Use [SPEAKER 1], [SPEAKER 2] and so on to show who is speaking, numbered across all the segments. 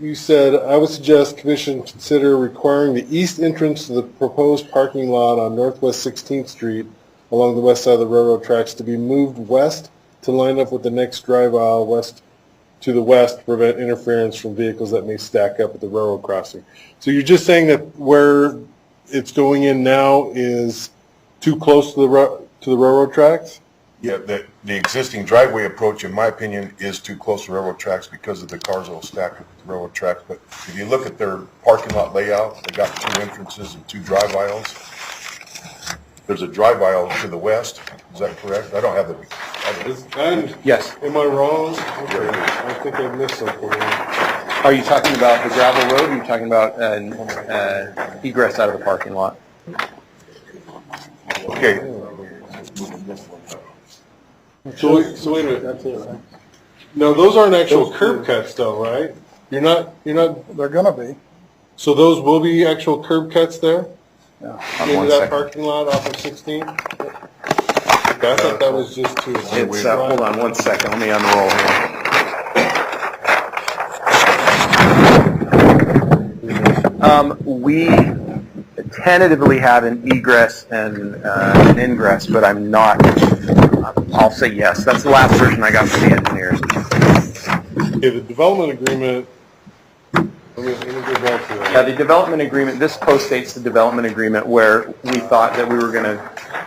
[SPEAKER 1] you said, I would suggest commission consider requiring the east entrance to the proposed parking lot on Northwest 16th Street along the west side of the railroad tracks to be moved west to line up with the next drive aisle west, to the west, to prevent interference from vehicles that may stack up at the railroad crossing. So you're just saying that where it's going in now is too close to the, ra- to the railroad tracks?
[SPEAKER 2] Yeah, the, the existing driveway approach, in my opinion, is too close to railroad tracks because of the cars that'll stack up at the railroad tracks. But if you look at their parking lot layout, they got two entrances and two drive aisles. There's a drive aisle to the west, is that correct? I don't have the, I don't-
[SPEAKER 3] Yes.
[SPEAKER 1] Am I wrong? Okay, I think I missed something.
[SPEAKER 3] Are you talking about the gravel road, or are you talking about an uh, egress out of the parking lot?
[SPEAKER 2] okay,
[SPEAKER 1] So, wait- so wait a minute. No, those aren't actual curb cuts though, right? You're not, you're not,
[SPEAKER 4] They're gonna be.
[SPEAKER 1] so those will be actual curb cuts there?
[SPEAKER 3] On
[SPEAKER 1] Into
[SPEAKER 3] one
[SPEAKER 1] that
[SPEAKER 3] second.
[SPEAKER 1] parking lot off of 16? I thought that was just to.
[SPEAKER 3] It's, uh, hold on one second, let me unroll here. Um, we tentatively had an egress and, uh, an ingress, but I'm not, I'll say yes. That's the last version I got from the engineers.
[SPEAKER 1] Okay, the development agreement, let me, let me go back to
[SPEAKER 3] Yeah,
[SPEAKER 1] that.
[SPEAKER 3] the development agreement, this postdates the development agreement where we thought that we were going to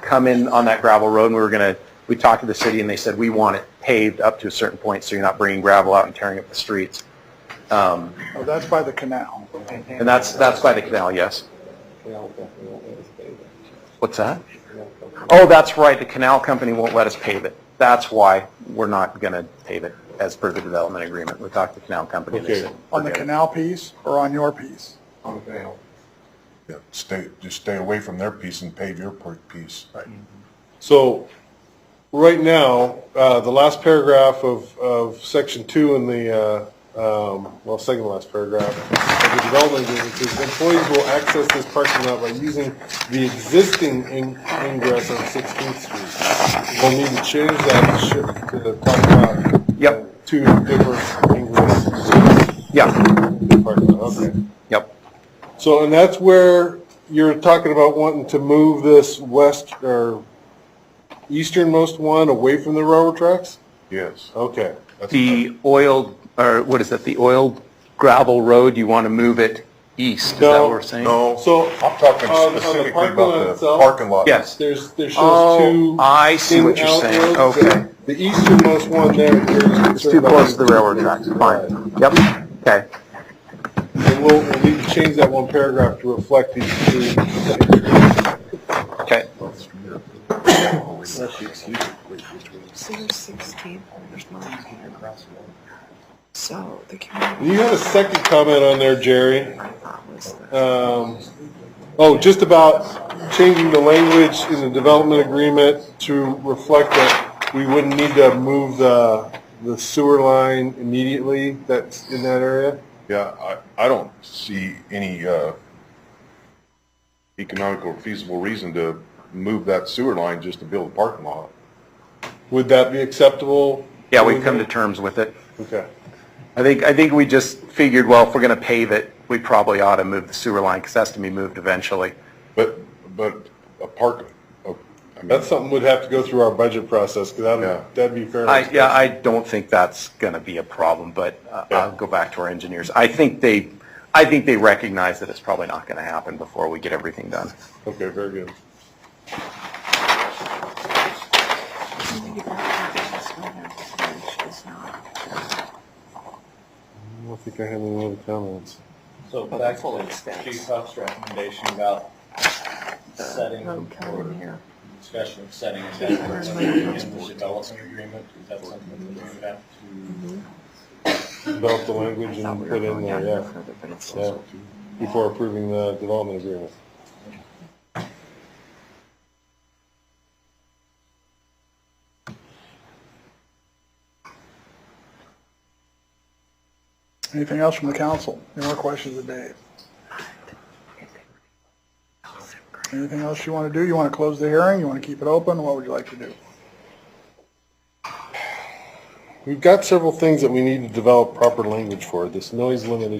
[SPEAKER 3] come in on that gravel road and we were going to, we talked to the city and they said, we want it paved up to a certain point so you're not bringing gravel out and tearing up the streets. Um,
[SPEAKER 4] Oh, that's by the canal.
[SPEAKER 3] And that's, that's by the canal, yes. What's that? Oh, that's right, the canal company won't let us pave it. That's why we're not going to pave it as per the development agreement. We talked to the canal company and they
[SPEAKER 1] Okay.
[SPEAKER 3] said.
[SPEAKER 4] On the
[SPEAKER 3] "Forget it."
[SPEAKER 4] canal piece or on your piece?
[SPEAKER 2] yeah, stay, just stay away from their piece and pave your part- piece.
[SPEAKER 1] So, right now, uh, the last paragraph of, of section two in the, uh, um, well, second to last paragraph of the development agreement says employees will access this parking lot by using the existing in- ingress on Sixteenth Street. We'll need to change that to shift to the parking lot.
[SPEAKER 3] Yep.
[SPEAKER 1] Two different ingress.
[SPEAKER 3] Yeah,
[SPEAKER 1] Parking lot, okay.
[SPEAKER 3] yep.
[SPEAKER 1] So, and that's where you're talking about wanting to move this west or easternmost one away from the railroad tracks?
[SPEAKER 2] Yes.
[SPEAKER 1] Okay.
[SPEAKER 3] The oil, or what is that, the oil gravel road, you want to move it east, is that
[SPEAKER 1] No,
[SPEAKER 3] what we're saying?
[SPEAKER 2] No,
[SPEAKER 1] So,
[SPEAKER 2] I'm talking
[SPEAKER 1] on- on the
[SPEAKER 2] specifically
[SPEAKER 1] parking lot
[SPEAKER 2] about the
[SPEAKER 1] itself?
[SPEAKER 2] parking lot.
[SPEAKER 3] Yes.
[SPEAKER 1] There's, there shows
[SPEAKER 3] Oh,
[SPEAKER 1] two.
[SPEAKER 3] I see what you're
[SPEAKER 1] in-out
[SPEAKER 3] saying,
[SPEAKER 1] roads.
[SPEAKER 3] okay.
[SPEAKER 1] The easternmost one there.
[SPEAKER 3] It's too close to the railroad tracks, fine. Yep, okay.
[SPEAKER 1] And we'll, we'll need to change that one paragraph to reflect these two.
[SPEAKER 3] Okay.
[SPEAKER 5] So there's 16, there's nine here. So the community
[SPEAKER 1] You had a second comment on there, Jerry.
[SPEAKER 5] I thought was the.
[SPEAKER 1] um, oh, just about changing the language in the development agreement to reflect that we wouldn't need to move the, the sewer line immediately that's in that area.
[SPEAKER 2] Yeah, I, I don't see any, uh, economic or feasible reason to move that sewer line just to build a parking lot.
[SPEAKER 1] Would that be acceptable?
[SPEAKER 3] Yeah, we've come to terms with it.
[SPEAKER 1] Okay.
[SPEAKER 3] I think, I think we just figured, well, if we're going to pave it, we probably ought to move the sewer line, because that's going to be moved eventually.
[SPEAKER 2] But, but a park, a- I mean,
[SPEAKER 1] That's something would have to go through our budget process, because
[SPEAKER 2] Yeah.
[SPEAKER 1] that'd, that'd be fair.
[SPEAKER 3] I, yeah, I don't think that's going to be a problem, but uh, I'll go back to our engineers. I think they, I think they recognize that it's probably not going to happen before we get everything done.
[SPEAKER 1] Okay, very good.
[SPEAKER 5] community development plan, which is not-
[SPEAKER 1] I don't think I have any other comments.
[SPEAKER 6] So back to Chief Huff's recommendation about setting
[SPEAKER 5] Road code in here.
[SPEAKER 6] discussion of setting a deadline in the development agreement, is that something that you have to?
[SPEAKER 1] Develop the language and put in there, yeah,
[SPEAKER 5] Further, but it's
[SPEAKER 1] yeah, before approving the development agreement.
[SPEAKER 4] Anything else from the council? Any more questions of Dave? Anything else you wanna do? You wanna close the hearing? You wanna keep it open? What would you like to do?
[SPEAKER 1] We've got several things that we need to develop proper language for. This noise limit